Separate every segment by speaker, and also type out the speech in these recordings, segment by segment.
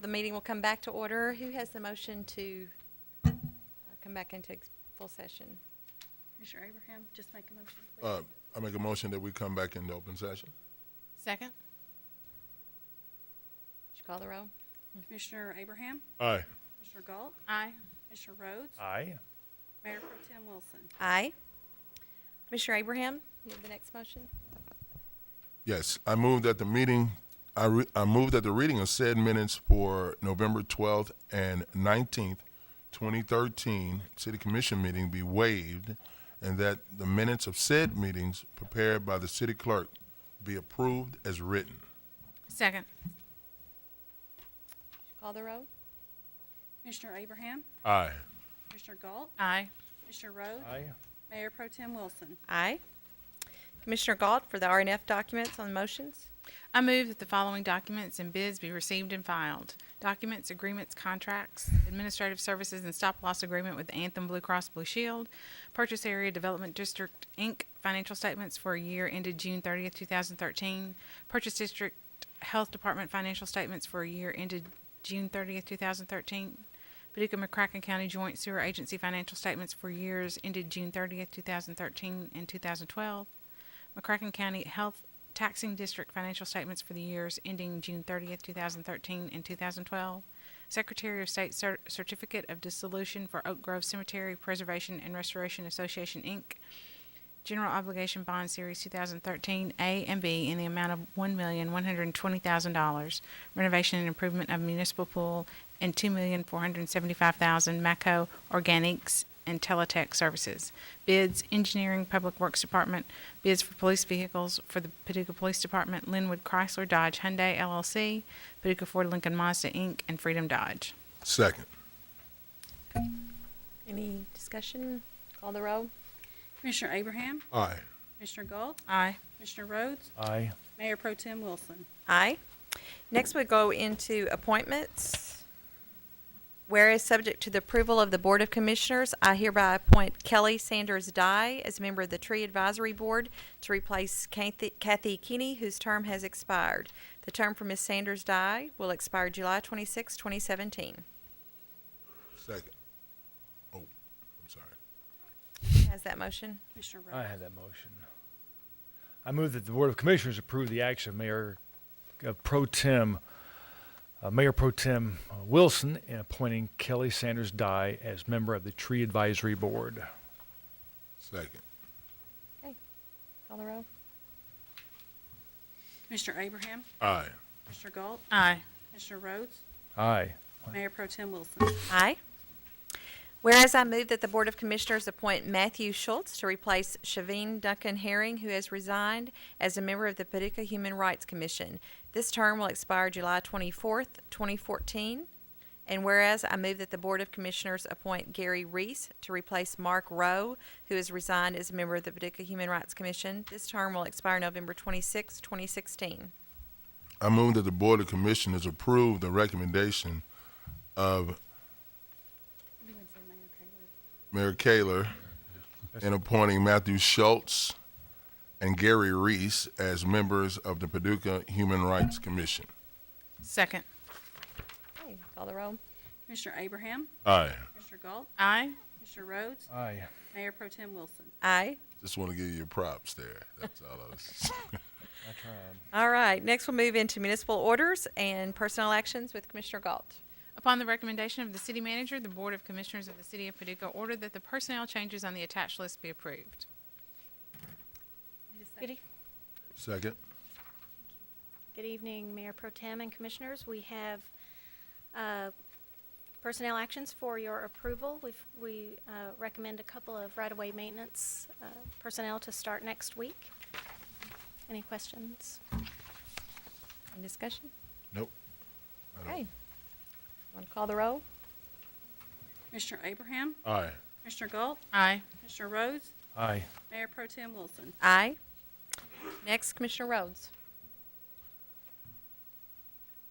Speaker 1: the meeting will come back to order. Who has the motion to uh, come back into ex- full session?
Speaker 2: Commissioner Abraham, just make a motion,
Speaker 3: Uh,
Speaker 2: please.
Speaker 3: I make a motion that we come back into open session.
Speaker 4: Second?
Speaker 1: Would you call the roll?
Speaker 2: Commissioner Abraham,
Speaker 3: Aye.
Speaker 2: Commissioner Galt,
Speaker 4: Aye.
Speaker 2: Commissioner Rhodes,
Speaker 5: Aye.
Speaker 2: Mayor Pro Tim Wilson.
Speaker 1: Aye. Commissioner Abraham, you have the next motion?
Speaker 3: Yes, I move that the meeting, I, re, I move that the reading of said minutes for November twelfth and nineteenth, twenty thirteen, city commission meeting be waived, and that the minutes of said meetings prepared by the city clerk be approved as written.
Speaker 4: Second?
Speaker 1: Would you Call the roll?
Speaker 2: Commissioner Abraham,
Speaker 3: Aye.
Speaker 2: Commissioner Galt,
Speaker 4: Aye.
Speaker 2: Commissioner Rhodes,
Speaker 5: Aye.
Speaker 2: Mayor Pro Tim Wilson.
Speaker 1: Aye. Commissioner Galt for the RNF documents on motions.
Speaker 4: I move that the following documents and bids be received and filed. Documents, agreements, contracts, administrative services and stop loss agreement with Anthem Blue Cross Blue Shield, Purchase Area Development District, Inc., financial statements for a year ended June thirtieth, two thousand thirteen, Purchase District Health Department financial statements for a year ended June thirtieth, two thousand thirteen, Paducah McCracken County Joint Sewer Agency financial statements for years ended June thirtieth, two thousand thirteen and two thousand twelve, McCracken County Health Taxing District financial statements for the years ending June 30th, 2013 and 2012. Secretary of State cer- Certificate of Dissolution for Oak Grove Cemetery Preservation and Restoration Association, Inc. General Obligation Bond Series 2013 A and B in the amount of $1,120,000. Renovation and improvement of municipal pool and $2,475,000 Maco Organics and Teletech Services. Bids, Engineering, Public Works Department, bids for police vehicles for the Paducah Police Department, Linwood Chrysler Dodge Hyundai LLC, Paducah Ford Lincoln Mazda Inc., and Freedom Dodge.
Speaker 3: Second.
Speaker 1: Any discussion? Call the roll?
Speaker 2: Commissioner Abraham,
Speaker 3: Aye.
Speaker 2: Commissioner Galt,
Speaker 4: Aye.
Speaker 2: Commissioner Rhodes,
Speaker 5: Aye.
Speaker 2: Mayor Pro Tim Wilson.
Speaker 1: Aye. Next, we go into appointments. Whereas subject to the approval of the Board of Commissioners, I hereby appoint Kelly Sanders Dye as member of the Tree Advisory Board to replace Kathy Kathy Kinney, whose term has expired. The term for Ms. Sanders Dye will expire July 26, 2017.
Speaker 3: Second. Oh, I'm sorry.
Speaker 1: Has that motion?
Speaker 2: Commissioner
Speaker 5: I
Speaker 2: Rhodes,
Speaker 5: have that motion. I move that the Board of Commissioners approve the action of Mayor, of Pro Tem, uh, Mayor Pro Tem uh, Wilson in appointing Kelly Sanders Dye as member of the Tree Advisory Board.
Speaker 3: Second.
Speaker 1: Call the roll.
Speaker 2: Commissioner Abraham,
Speaker 3: Aye.
Speaker 2: Commissioner Galt,
Speaker 4: Aye.
Speaker 2: Commissioner Rhodes,
Speaker 5: Aye.
Speaker 2: Mayor Pro Tim Wilson.
Speaker 1: Aye. Whereas I move that the Board of Commissioners appoint Matthew Schultz to replace Shavine Duncan Herring, who has resigned as a member of the Paducah Human Rights Commission. This term will expire July twenty-fourth, twenty fourteen. And whereas I move that the Board of Commissioners appoint Gary Reese to replace Mark Rowe, who has resigned as a member of the Paducah Human Rights Commission. This term will expire November twenty-sixth, twenty sixteen.
Speaker 3: I move that the Board of Commissioners approve the recommendation of Mayor Kaler in appointing Matthew Schultz and Gary Reese as members of the Paducah Human Rights Commission.
Speaker 4: Second.
Speaker 1: Okay, call the roll.
Speaker 2: Commissioner Abraham,
Speaker 3: Aye.
Speaker 2: Commissioner Galt,
Speaker 4: Aye.
Speaker 2: Commissioner Rhodes,
Speaker 5: Aye.
Speaker 2: Mayor Pro Tim Wilson.
Speaker 1: Aye.
Speaker 3: Just want to give you your props there. That's all I was.
Speaker 5: I tried.
Speaker 1: All right, next we'll move into municipal orders and personnel actions with Commissioner Galt.
Speaker 4: Upon the recommendation of the city manager, the Board of Commissioners of the City of Paducah ordered that the personnel changes on the attached list be approved.
Speaker 6: Good,
Speaker 3: Second.
Speaker 6: good evening, Mayor Pro Tem and Commissioners. We have uh, personnel actions for your approval. We've, we uh, recommend a couple of right-of-way maintenance uh, personnel to start next week. Any questions?
Speaker 1: Any discussion?
Speaker 3: Nope.
Speaker 1: Okay. Want to call the roll?
Speaker 2: Commissioner Abraham,
Speaker 3: Aye.
Speaker 2: Commissioner Galt,
Speaker 4: Aye.
Speaker 2: Commissioner Rhodes,
Speaker 5: Aye.
Speaker 2: Mayor Pro Tim Wilson.
Speaker 1: Aye. Next, Commissioner Rhodes.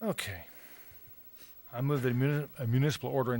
Speaker 5: Okay. I move that a muni- a municipal order